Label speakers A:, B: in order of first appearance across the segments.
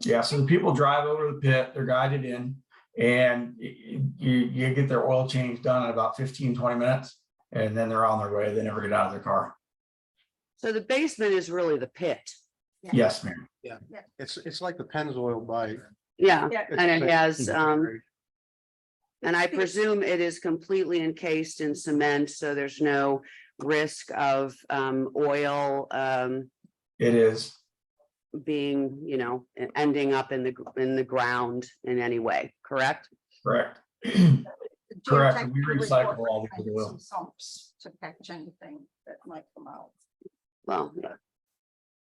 A: Yeah, so the people drive over to the pit, they're guided in, and y- y- you, you get their oil change done in about 15, 20 minutes, and then they're on their way. They never get out of their car.
B: So the basement is really the pit.
A: Yes, ma'am.
C: It's, it's like the Pennzoil by.
B: Yeah,
D: Yeah.
B: And it has, um, and I presume it is completely encased in cement, so there's no risk of um oil um
A: It is.
B: being, you know, e- ending up in the gr- in the ground in any way, correct?
A: Correct.
D: Geotech
A: we
D: would
A: recycle
D: work
A: all
D: with
A: the
D: some
A: goodwill.
D: Sumps to catch anything that might come out,
B: Well, yeah.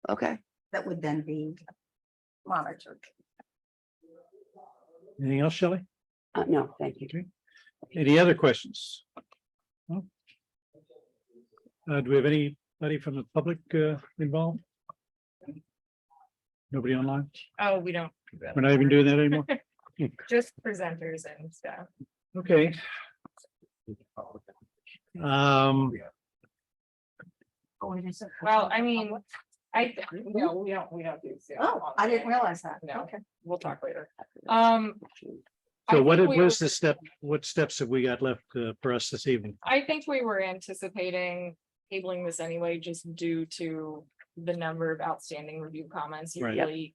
B: Okay,
D: that would then be monitored.
E: Anything else, Shelley?
B: uh, no, thank you.
E: Any other questions? No? Uh, do we have anybody from the public, uh, involved? Nobody online?
F: Oh, we don't,
E: We're not even doing that anymore?
F: just presenters and stuff.
E: Okay. Um,
D: Oh,
F: Well, I mean, I, th- no, we don't, we don't do. Zoom
D: Oh,
F: on
D: I
F: there.
D: didn't realize that.
F: No.
D: Okay.
F: We'll talk later. Um. I
E: so what,
F: think we
E: what's
F: were-
E: the step, what steps have we got left, uh, for us this evening?
F: I think we were anticipating tabling this anyway, just due to the number of outstanding review comments.
E: Right.
F: Usually,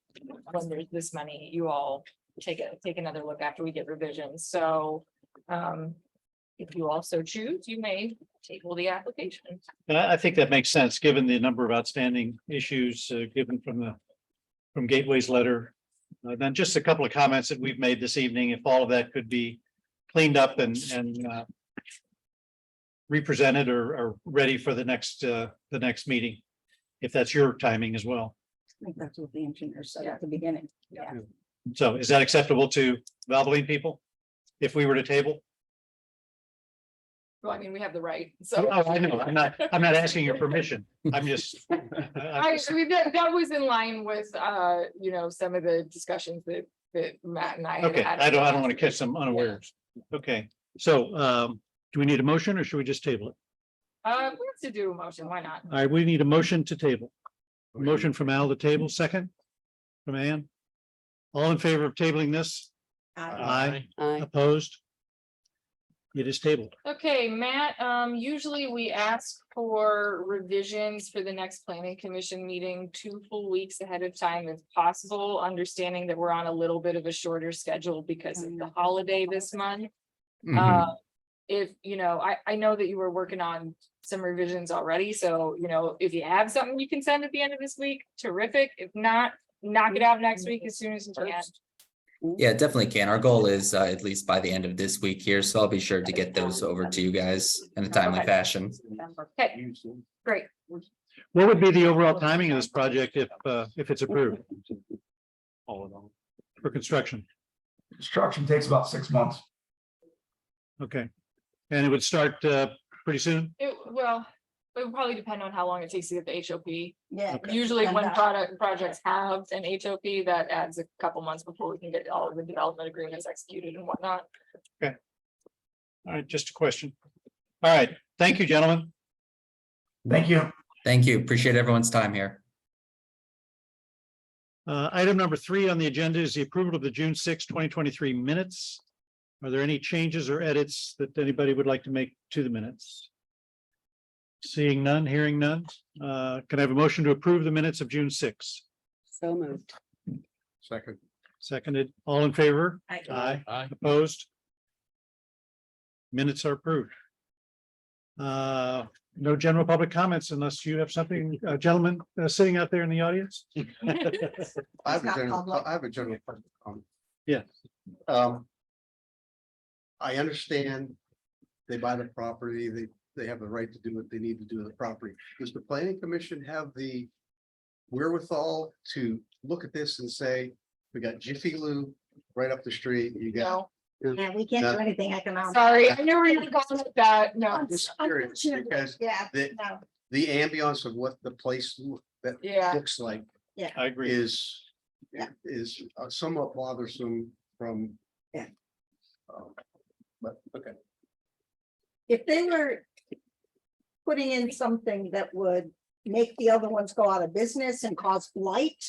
F: when there's this many, you all take it, take another look after we get revisions, so. Um, if you also choose, you may table the application.
E: And I, I think that makes sense, given the number of outstanding issues uh, given from the, from Gateway's letter. Uh, Then just a couple of comments that we've made this evening, if all of that could be cleaned up and, and uh, represented or, or ready for the next, uh, the next meeting, if that's your timing as well.
D: I think that's what the engineer said
F: Yeah.
D: at the beginning. Yeah.
E: So is that acceptable to Valvoline people? If we were to table?
F: Well, I mean, we have the right, so.
E: Oh, I know, I'm not, I'm not asking your permission. I'm just. I- I'm
F: I,
E: just-
F: I mean, that, that was in line with, uh, you know, some of the discussions that, that Matt and I. had
E: Okay,
F: had.
E: I don't, I don't want to catch them unawares. Okay, so um, do we need a motion or should we just table it?
F: Uh, we have to do a motion, why not?
E: All right, we need a motion to table. Motion from Al to table, second from Ann. All in favor of tabling this? Aye.
B: Uh,
E: Opposed? It is tabled.
F: Okay, Matt, um, usually we ask for revisions for the next planning commission meeting two full weeks ahead of time if possible, understanding that we're on a little bit of a shorter schedule because of the holiday this month.
G: Mm-hmm.
F: Uh, if, you know, I, I know that you were working on some revisions already, so, you know, if you have something you can send at the end of this week, terrific. If not, knock it out next week as soon as you can.
G: Yeah, definitely can. Our goal is uh, at least by the end of this week here, so I'll be sure to get those over to you guys in a timely
F: Okay.
G: fashion.
F: Great.
E: What would be the overall timing of this project if, uh, if it's approved? All in all. For construction,
A: Construction takes about six months.
E: okay. And it would start uh, pretty soon?
F: It, well, it would probably depend on how long it takes to get the HOP.
D: Yeah.
F: Usually when
D: And, uh,
F: product, projects have an HOP, that adds a couple months before we can get all of the development agreements executed and whatnot.
E: All right, just a question. All right, thank you, gentlemen.
A: Thank you.
G: Thank you. Appreciate everyone's time here.
E: Uh, item number three on the agenda is the approval of the June sixth, twenty twenty-three minutes. Are there any changes or edits that anybody would like to make to the minutes? Seeing none, hearing none, uh, can I have a motion to approve the minutes of June sixth?
B: so moved.
C: Second.
E: Seconded, all in favor?
D: I-
E: Aye. Opposed? Minutes are approved. Uh, no general public comments unless you have something, uh, gentlemen, uh, sitting out there in the audience?
C: I have a
D: Not
C: general,
D: public.
C: I have a general. question. Um,
E: Yes.
C: Um. I understand they buy the property, they, they have the right to do what they need to do to the property. Does the planning commission have the wherewithal to look at this and say, we got Jiffy Lube right up the street, you got.
F: No,
D: Yeah, we can't do anything economic.
F: sorry, I never really got with that, no,
D: Un-
C: just curious,
D: Unfortunately,
C: because
D: yeah,
C: the-
D: no,
C: The ambiance of what the place loo- that
F: yeah,
C: looks like
E: I agree.
C: is,
D: Yeah.
C: is uh, somewhat bothersome from.
D: Yeah.
C: Um, But, okay.
D: if they were putting in something that would make the other ones go out of business and cause blight,